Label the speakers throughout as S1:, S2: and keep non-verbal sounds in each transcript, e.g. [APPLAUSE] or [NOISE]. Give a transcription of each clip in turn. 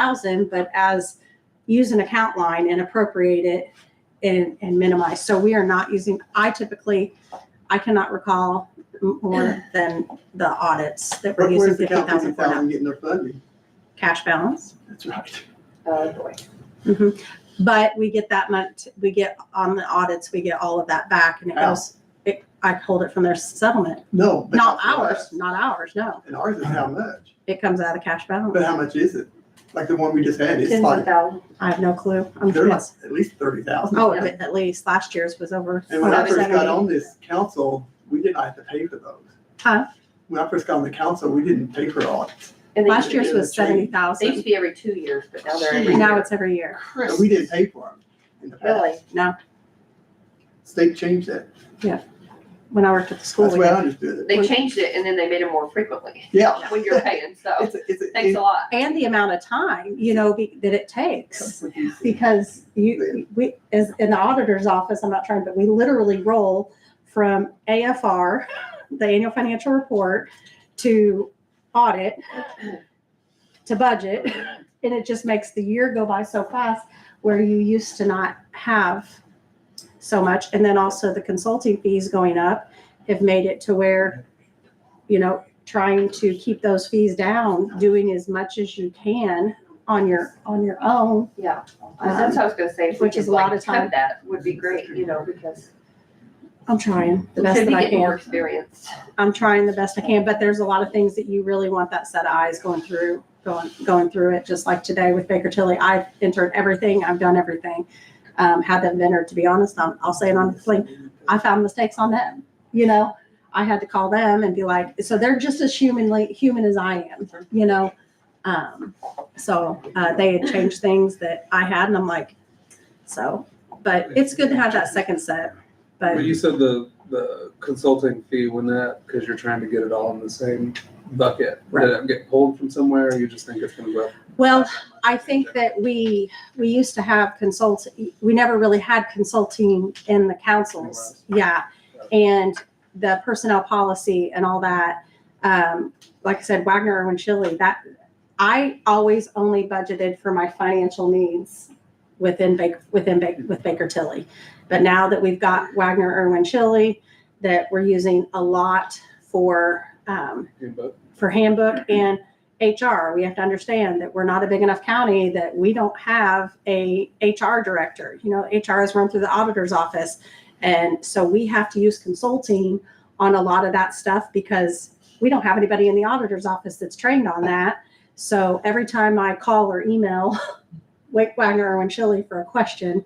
S1: thousand, but as use an account line and appropriate it and, and minimize. So we are not using, I typically, I cannot recall m-
S2: [CLEARS THROAT]
S1: more than the audits that we're
S2: But
S1: using
S2: where's the
S1: fifty thousand
S2: California
S1: for now.
S2: thousand getting their funding?
S1: Cash balance.
S2: That's right.
S3: Oh, boy.
S1: Mhm. But we get that much, we get on the audits, we get all of that back and it
S2: How?
S1: goes, it, I hold it from their settlement.
S2: No. but
S1: Not
S2: for
S1: ours,
S2: us.
S1: not ours, no.
S2: And ours is how much?
S1: It comes out of cash
S2: But how
S1: balance.
S2: much is it? Like the one we just had, it's
S3: Tens of
S2: like,
S3: thousands.
S1: I have no clue. I'm
S2: they're like
S1: just-
S2: at least thirty thousand.
S1: Oh, at at least last year's was over.
S2: And when I first got
S1: 170.
S2: on this council, we didn't have to pay for those.
S1: Huh?
S2: When I first got on the council, we didn't pay for audits.
S3: And
S1: Last
S3: they,
S1: year's was seventy
S3: they used to
S1: thousand.
S3: be every two years, but now they're every
S2: Jeez.
S1: Now
S3: year.
S1: it's every year.
S2: And we didn't pay for them in the past.
S3: Really?
S2: State changed that.
S1: When I worked at the school,
S2: That's the
S1: we
S2: way I
S1: did.
S2: understood it.
S3: They changed it and then they made it more frequently [LAUGHS]
S2: Yeah.
S3: when you're paying, so
S2: It's, a- it's, a-
S3: thanks a
S2: it
S3: lot.
S1: and the amount of time, you know, be- that it takes.
S2: comes with these-
S1: Because you, we, as in the auditor's office, I'm not trying, but we literally roll from AFR, the annual financial report, to audit, to budget. And it just makes the year go by so fast where you used to not have so much. And then also the consulting fees going up have made it to where, you know, trying to keep those fees down, doing as much as you can on your, on your own.
S3: Yeah, that's what I was gonna say, if we
S1: Which is
S3: could
S1: a lot
S3: like
S1: of time.
S3: cut that, would be great, you know, because
S1: I'm trying the
S3: we
S1: best
S3: should
S1: that
S3: be
S1: I
S3: getting more
S1: can.
S3: experience.
S1: I'm trying the best I can, but there's a lot of things that you really want that set of eyes going through, going, going through it. Just like today with Baker Tilly, I've entered everything, I've done everything. Um, had them entered, to be honest, I'm, I'll say it honestly, I found mistakes on them. You know, I had to call them and be like, so they're just as humanly human as I am. You know, um, so uh, they had changed things that I had, and I'm like, so. But it's good to have that second set.
S4: But
S1: But
S4: you said the, the consulting fee, wouldn't that, because you're trying to get it all in the same bucket, did it get pulled from somewhere, or you just think it's gonna go up?
S1: well, I think that we we used to have consult. We never really had consulting in the councils. Yeah, and the personnel policy and all that. Um, like I said, Wagner Irwin Chili. That I always only budgeted for my financial needs within Baker within Baker with Baker Tilly. But now that we've got Wagner Irwin Chili, that we're using a lot for um,
S4: You know,
S1: for handbook and HR. We have to understand that we're not a big enough county that we don't have a HR director. You know, HR is run through the auditor's office. And so we have to use consulting on a lot of that stuff because we don't have anybody in the auditor's office that's trained on that. So every time I call or email [LAUGHS] Wake Wagner Irwin Chili for a question,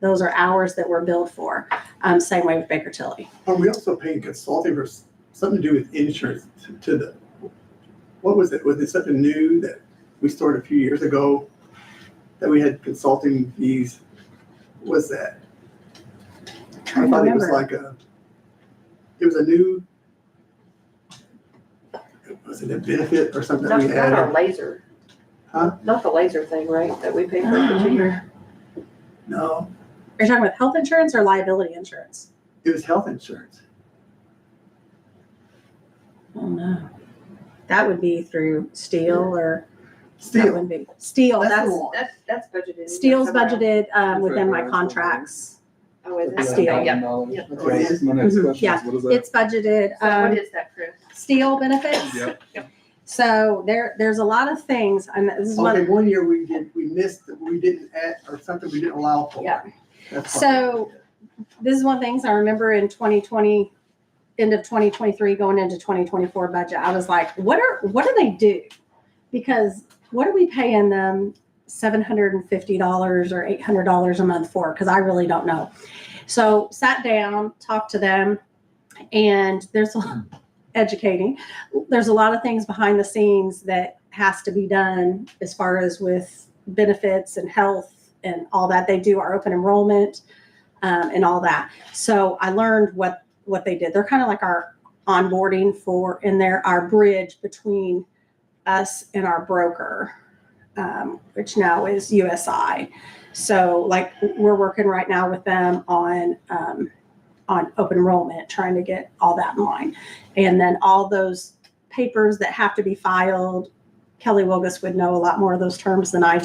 S1: those are hours that we're billed for. Um, same way with Baker Tilly.
S2: Are we also paying consulting for s- something to do with insurance to- to the, what was it? Was it something new that we started a few years ago that we had consulting fees? What Was that? I
S1: Trying to
S2: thought it was
S1: remember.
S2: like a, it was a new, was it a benefit or something that
S3: Not,
S2: we
S3: not our
S2: had?
S3: laser.
S2: Huh? Uh-huh.
S3: Not the laser thing, right, that we pay for each year?
S2: No,
S1: Are you talking about health insurance or liability insurance?
S2: it was health insurance.
S1: Oh no. That would be through steel or that
S2: Still,
S1: wouldn't be steel.
S2: That's
S1: That's
S2: the one.
S3: That's, that's budgeted. in
S1: steel's
S3: somewhere.
S1: budgeted um, within my
S4: Right.
S1: contracts.
S3: Oh, is it?
S4: that's
S1: Steel.
S3: Okay, Yeah.
S4: $11,000.
S3: Yeah.
S4: That's what it is. My next
S1: Mhm.
S4: question
S1: Yeah.
S4: is, what is that?
S1: It's budgeted
S3: So what
S1: um,
S3: is that, Chris?
S1: steel benefits.
S4: Yep.
S1: So there, there's a lot of things, and this is
S2: okay,
S1: one.
S2: one year we did, we missed, we didn't add, or something we didn't allow for.
S3: Yeah.
S2: That's why.
S1: So- This is one of the things I remember in 2020, end of 2023, going into 2024 budget. I was like, what are what do they do? Because what are we paying them seven hundred and fifty dollars or eight hundred dollars a month for? Because I really don't know. So sat down, talked to them, and there's a- [LAUGHS] educating. There's a lot of things behind the scenes that has to be done as far as with benefits and health and all that. They do our open enrollment um, and all that. So I learned what what they did. They're kind of like our onboarding for, and they're our bridge between us and our broker, um, which now is USI. So like we're working right now with them on um, on open enrollment, trying to get all that in line, and then all those papers that have to be filed, Kelly Wilgus would know a lot more of those terms than I do.